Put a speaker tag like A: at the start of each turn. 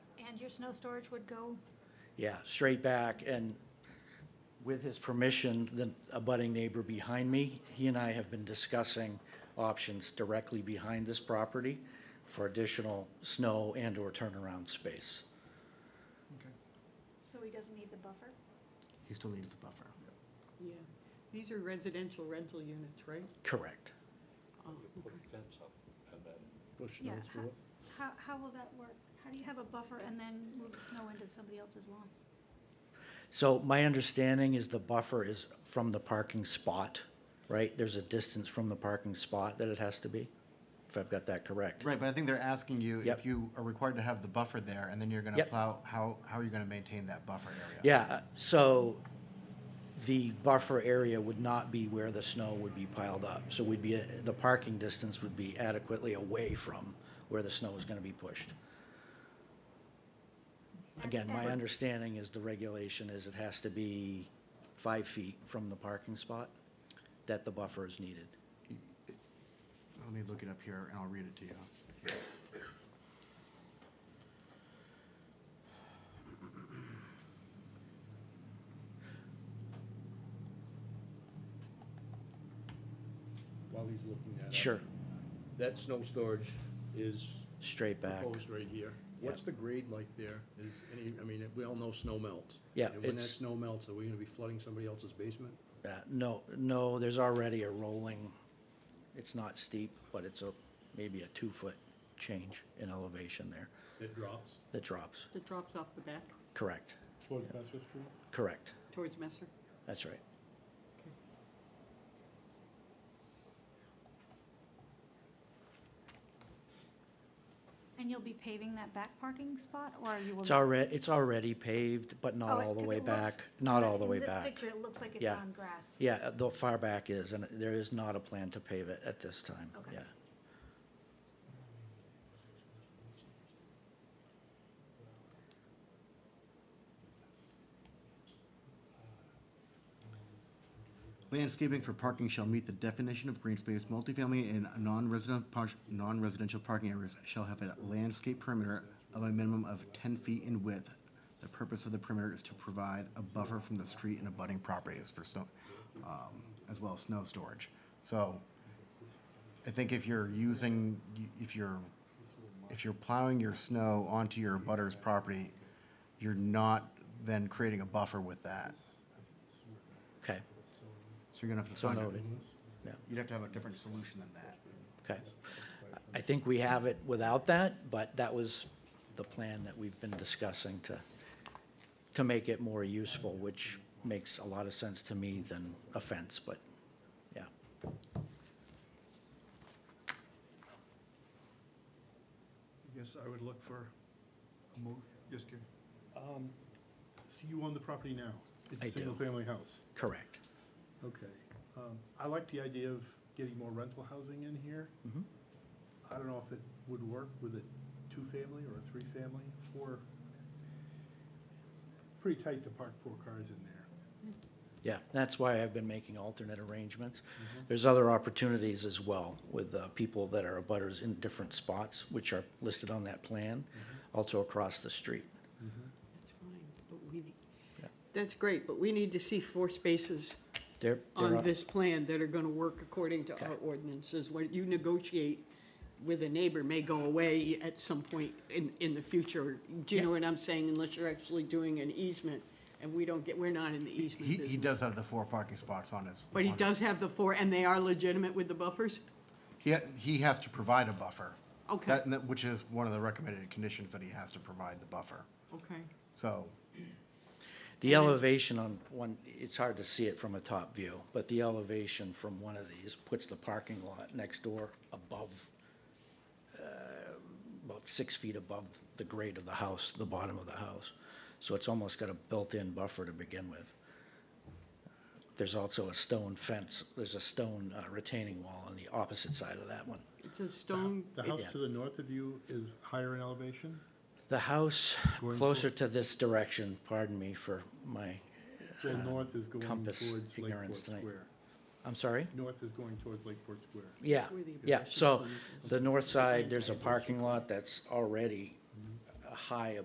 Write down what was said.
A: your snow storage would go?
B: Yeah, straight back, and with his permission, the abutting neighbor behind me, he and I have been discussing options directly behind this property for additional snow and/or turnaround space.
A: So he doesn't need the buffer?
C: He still needs the buffer.
D: Yeah, these are residential rental units, right?
B: Correct.
D: Oh,
E: You put a fence up and then
B: Oh,
E: push
A: Yeah,
E: snow through it.
A: How, how will that work? How do you have a buffer and then move the snow into somebody else's lawn?
B: So my understanding is the buffer is from the parking spot, right? There's a distance from the parking spot that it has to be, if I've got that correct.
C: Right, but I think they're asking you if
B: Yep.
C: you are required to have the buffer there, and then you're gonna
B: Yep.
C: plow, how, how are you gonna maintain that buffer area?
B: Yeah, uh, so the buffer area would not be where the snow would be piled up. So we'd be, uh, the parking distance would be adequately away from where the snow is going to be pushed. Again, my
A: And-
B: understanding is the regulation is it has to be five feet from the parking spot that the buffer is needed.
C: Let me look it up here, and I'll read it to you.
E: While he's looking at it.
B: Sure,
E: That snow storage is
B: straight back.
E: proposed right here. What's
B: Yep.
E: the grade like there? Is any, I mean, we all know snow melts.
B: Yeah,
E: And when that
B: it's-
E: snow melts, are we gonna be flooding somebody else's basement?
B: Uh, No, no, there's already a rolling, it's not steep, but it's a, maybe a two-foot change in elevation there
E: It drops.
B: that drops.
D: That drops off the back
B: Correct,
E: Towards Messer Street?
B: correct.
D: towards Messer?
B: That's right.
A: And you'll be paving that back parking spot, or you will?
B: It's
A: not?
B: already, it's already paved, but
A: Oh,
B: not
A: it-
B: all the
A: 'cause
B: way
A: it looks-
B: back, not
A: but
B: all the
A: in
B: way
A: this
B: back.
A: picture, it looks like it's
B: Yeah.
A: on grass.
B: Yeah, uh, the far back is, and there is not a plan to pave it at this time,
A: Okay.
B: yeah.
C: Landscaping for parking shall meet the definition of green space, multifamily and non-resident, par- non-residential parking areas shall have a landscape perimeter of a minimum of ten feet in width. The purpose of the perimeter is to provide a buffer from the street and abutting properties for snow, um, as well as snow storage. So I think if you're using, if you're, if you're plowing your snow onto your butter's property, you're not then creating a buffer with that.
B: Okay,
C: So you're gonna have to
B: so
C: find a-
B: noted, yeah.
C: You'd have to have a different solution than that.
B: Okay. I- I think we have it without that, but that was the plan that we've been discussing to, to make it more useful, which makes a lot of sense to me than a fence, but, yeah.
F: I guess I would look for a mo, just kidding. Um, So you own the property now?
B: I do.
F: It's a single-family house?
B: Correct.
F: Okay. Um, I like the idea of getting more rental housing in here.
B: Mhm.
F: I don't know if it would work with a two-family or a three-family, four. Pretty tight to park four cars in there.
B: Yeah, that's why I've been making alternate arrangements. There's other opportunities as well with uh, people that are abutters in different spots, which are listed on that plan, also across the street.
D: That's fine, but we, need-
B: Yeah.
D: that's great, but we need to see four spaces
B: There, there
D: on
B: are,
D: this plan that are gonna work according to our
B: Okay.
D: ordinances. What you negotiate with a neighbor may go away at some point in, in the future. Do you know what I'm saying? Unless you're actually doing an easement, and we don't get, we're not in the easement
C: He,
D: business.
C: he does have the four parking spots on his.
D: But he
C: on-
D: does have the four, and they are legitimate with the buffers?
C: He, ha- he has to provide a buffer.
D: Okay.
C: That- and that- Which is one of the recommended conditions that he has to provide the buffer.
D: Okay.
C: So,
B: the elevation on one, it's hard to see it from a top view, but the elevation from one of these puts the parking lot next door above, uh, about six feet above the grade of the house, the bottom of the house. So it's almost got a built-in buffer to begin with. There's also a stone fence, there's a stone uh, retaining wall on the opposite side of that one.
D: It's a stone,
F: The
B: It-
F: house
B: yeah.
F: to the north of you is higher in elevation?
B: The house
F: Going
B: closer to this direction, pardon me for my,
F: Well,
B: Uh,
F: north is going
B: compass
F: towards Lakeport
B: ignorance tonight.
F: Square.
B: I'm sorry?
F: North is going towards Lakeport Square.
B: Yeah,
D: That's where the
B: yeah,
D: impression
B: so
D: comes
B: the north side, there's a parking lot that's already uh, high